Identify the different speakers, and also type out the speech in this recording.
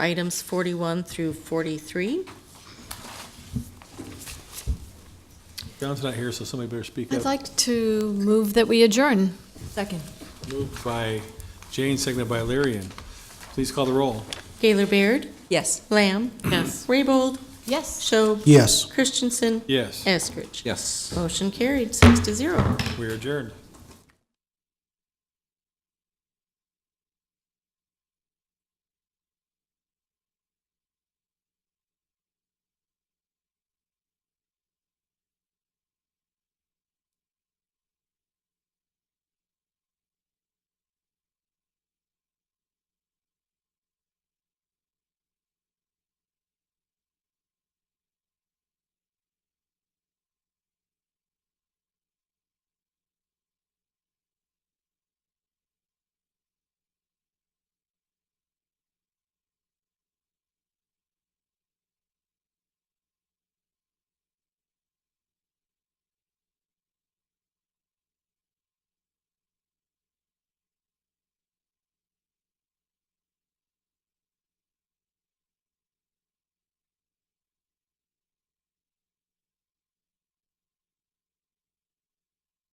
Speaker 1: items 41 through 43.
Speaker 2: John's not here, so somebody better speak
Speaker 3: I'd
Speaker 2: up.
Speaker 3: like to move that we adjourn.
Speaker 4: Second.
Speaker 2: Moved by Jane, seconded by Lyrian. Please call the roll.
Speaker 1: Gaylor Baird?
Speaker 4: Yes.
Speaker 1: Lamb? Yes. Raybold?
Speaker 3: Yes.
Speaker 1: Schob?
Speaker 5: Yes.
Speaker 1: Christensen?
Speaker 2: Yes,
Speaker 1: Eskridge?
Speaker 6: Yes.
Speaker 1: Motion carried, six to zero.
Speaker 2: we are adjourned.